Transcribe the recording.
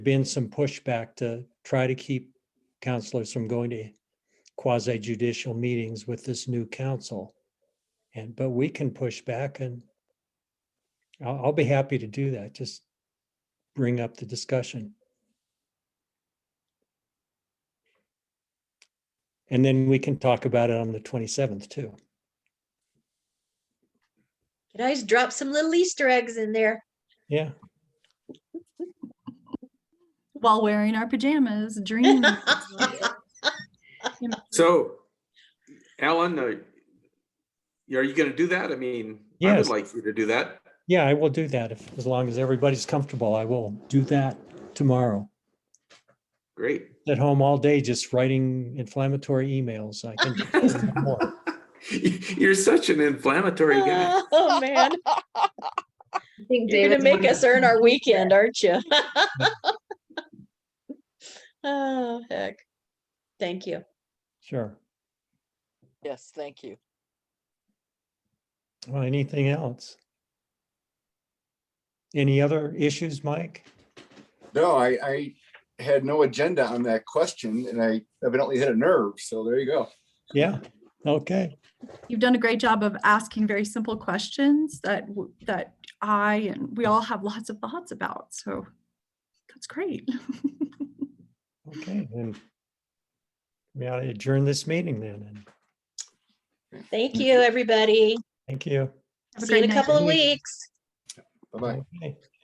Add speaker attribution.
Speaker 1: been some pushback to try to keep counselors from going to quasi judicial meetings with this new council. And, but we can push back and I'll, I'll be happy to do that. Just bring up the discussion. And then we can talk about it on the 27th too.
Speaker 2: Could always drop some little Easter eggs in there.
Speaker 1: Yeah.
Speaker 3: while wearing our pajamas, dreaming.
Speaker 4: So, Alan, uh, y- are you going to do that? I mean, I
Speaker 1: Yes.
Speaker 4: would like you to do that.
Speaker 1: Yeah, I will do that. If, as long as everybody's comfortable, I will do that tomorrow.
Speaker 4: Great.
Speaker 1: at home all day just writing inflammatory emails. I can more.
Speaker 4: You're such an inflammatory guy.
Speaker 2: Oh, man. You're going to make us earn our weekend, aren't you? Oh, heck. Thank you.
Speaker 1: Sure.
Speaker 5: Yes, thank you.
Speaker 1: Well, anything else? Any other issues, Mike?
Speaker 6: No, I, I had no agenda on that question and I evidently hit a nerve. So there you go.
Speaker 1: Yeah. Okay.
Speaker 3: You've done a great job of asking very simple questions that w- that I and we all have lots of thoughts about. So that's great.
Speaker 1: Okay. Then we ought to adjourn this meeting then. And
Speaker 2: Thank you, everybody.
Speaker 1: thank you.
Speaker 3: Have a
Speaker 2: See you in
Speaker 3: great
Speaker 2: a
Speaker 3: night.
Speaker 2: couple of weeks.
Speaker 6: Bye bye.
Speaker 1: Okay.